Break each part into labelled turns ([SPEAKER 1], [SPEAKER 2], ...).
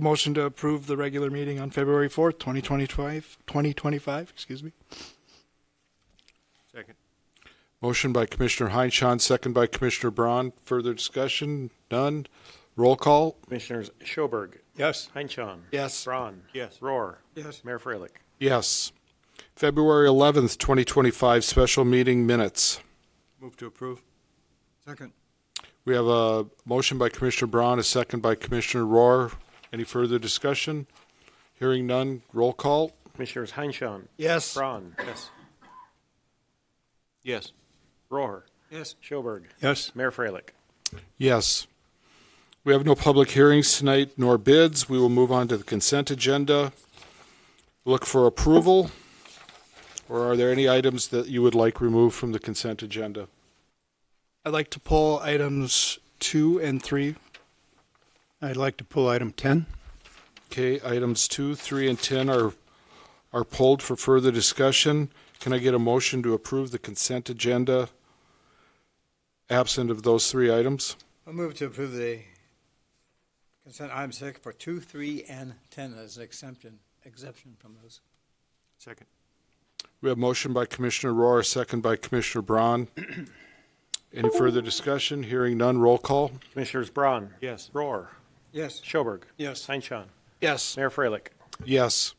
[SPEAKER 1] Motion to approve the regular meeting on February 4th, 2025, 2025, excuse me.
[SPEAKER 2] Second.
[SPEAKER 3] Motion by Commissioner Heinchan, second by Commissioner Braun. Further discussion? None. Roll call?
[SPEAKER 4] Commissioners Schoberg,
[SPEAKER 2] Yes.
[SPEAKER 4] Heinchan.
[SPEAKER 1] Yes.
[SPEAKER 4] Braun.
[SPEAKER 2] Yes.
[SPEAKER 4] Roar.
[SPEAKER 2] Yes.
[SPEAKER 4] Mayor Freilich.
[SPEAKER 3] Yes. February 11th, 2025, special meeting minutes.
[SPEAKER 2] Move to approve. Second.
[SPEAKER 3] We have a motion by Commissioner Braun, a second by Commissioner Roar. Any further discussion? Hearing none. Roll call?
[SPEAKER 4] Commissioners Heinchan.
[SPEAKER 1] Yes.
[SPEAKER 4] Braun.
[SPEAKER 2] Yes. Yes.
[SPEAKER 4] Roar.
[SPEAKER 2] Yes.
[SPEAKER 4] Schoberg.
[SPEAKER 2] Yes.
[SPEAKER 4] Mayor Freilich.
[SPEAKER 3] Yes. We have no public hearings tonight nor bids. We will move on to the consent agenda. Look for approval. Or are there any items that you would like removed from the consent agenda?
[SPEAKER 1] I'd like to pull items two and three.
[SPEAKER 2] I'd like to pull item 10.
[SPEAKER 3] Okay, items two, three, and ten are, are pulled for further discussion. Can I get a motion to approve the consent agenda absent of those three items?
[SPEAKER 5] I'll move to approve the consent item six for two, three, and ten as an exemption, exception from those.
[SPEAKER 2] Second.
[SPEAKER 3] We have motion by Commissioner Roar, second by Commissioner Braun. Any further discussion? Hearing none, roll call.
[SPEAKER 4] Commissioners Braun.
[SPEAKER 2] Yes.
[SPEAKER 4] Roar.
[SPEAKER 5] Yes.
[SPEAKER 4] Schoberg.
[SPEAKER 1] Yes.
[SPEAKER 4] Heinchan.
[SPEAKER 1] Yes.
[SPEAKER 4] Mayor Freilich.
[SPEAKER 3] Yes.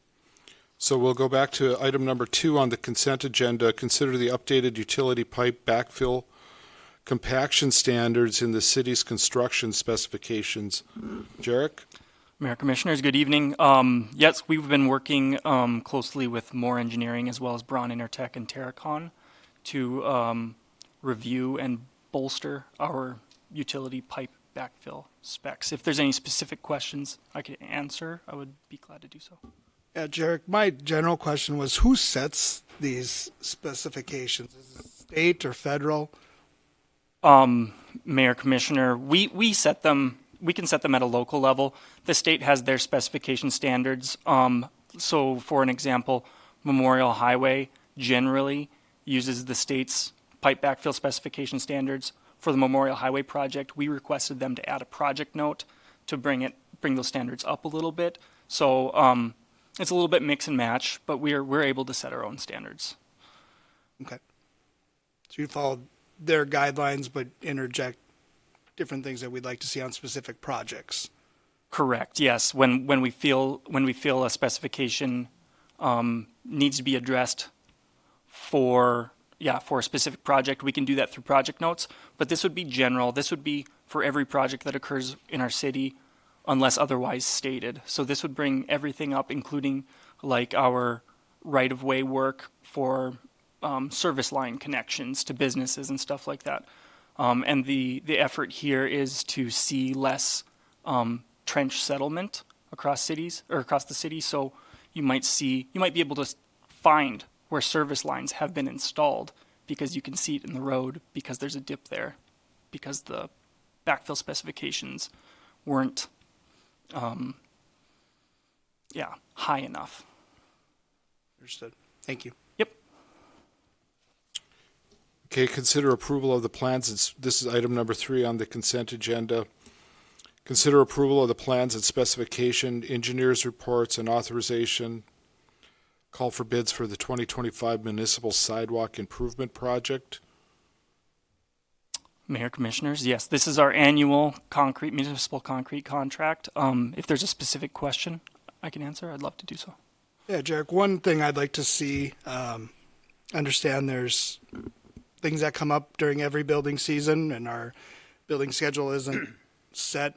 [SPEAKER 3] So we'll go back to item number two on the consent agenda. Consider the updated utility pipe backfill compaction standards in the city's construction specifications. Jarek?
[SPEAKER 6] Mayor Commissioners, good evening. Um, yes, we've been working um, closely with Moore Engineering as well as Braun Intertech and Terracon to um, review and bolster our utility pipe backfill specs. If there's any specific questions I could answer, I would be glad to do so.
[SPEAKER 1] Yeah, Jarek, my general question was who sets these specifications? Is it state or federal?
[SPEAKER 6] Um, Mayor Commissioner, we, we set them, we can set them at a local level. The state has their specification standards. Um, so for an example, Memorial Highway generally uses the state's pipe backfill specification standards. For the Memorial Highway project, we requested them to add a project note to bring it, bring those standards up a little bit. So, um, it's a little bit mix and match, but we're, we're able to set our own standards.
[SPEAKER 1] Okay. So you follow their guidelines but interject different things that we'd like to see on specific projects.
[SPEAKER 6] Correct. Yes. When when we feel when we feel a specification um, needs to be addressed for yeah for a specific project, we can do that through project notes. But this would be general. This would be for every project that occurs in our city, unless otherwise stated. So this would bring everything up, including like our right of way work for um, service line connections to businesses and stuff like that. Um, and the, the effort here is to see less um, trench settlement across cities or across the city. So you might see, you might be able to s- find where service lines have been installed because you can see it in the road because there's a dip there, because the backfill specifications weren't, um, yeah, high enough.
[SPEAKER 1] Understood. Thank you.
[SPEAKER 6] Yep.
[SPEAKER 3] Okay, consider approval of the plans. It's- This is item number three on the consent agenda. Consider approval of the plans and specification, engineers' reports, and authorization. Call for bids for the 2025 municipal sidewalk improvement project.
[SPEAKER 6] Mayor Commissioners, yes, this is our annual concrete, municipal concrete contract. Um, if there's a specific question I can answer, I'd love to do so.
[SPEAKER 1] Yeah, Jarek, one thing I'd like to see, um, understand there's things that come up during every building season and our building schedule isn't set.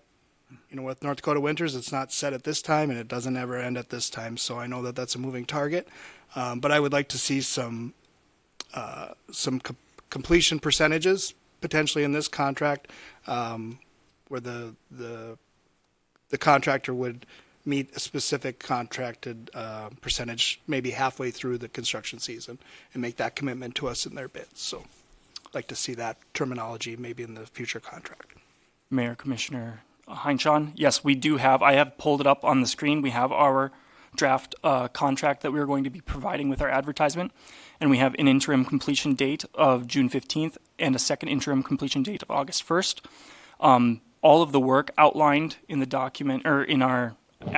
[SPEAKER 1] You know, with North Dakota winters, it's not set at this time and it doesn't ever end at this time. So I know that that's a moving target. Um, but I would like to see some, uh, some com- completion percentages potentially in this contract, um, where the, the the contractor would meet a specific contracted uh, percentage maybe halfway through the construction season and make that commitment to us in their bids. So I'd like to see that terminology maybe in the future contract.
[SPEAKER 6] Mayor Commissioner Heinchan, yes, we do have, I have pulled it up on the screen. We have our draft uh, contract that we are going to be providing with our advertisement. And we have an interim completion date of June 15th and a second interim completion date of August 1st. Um, all of the work outlined in the document or in our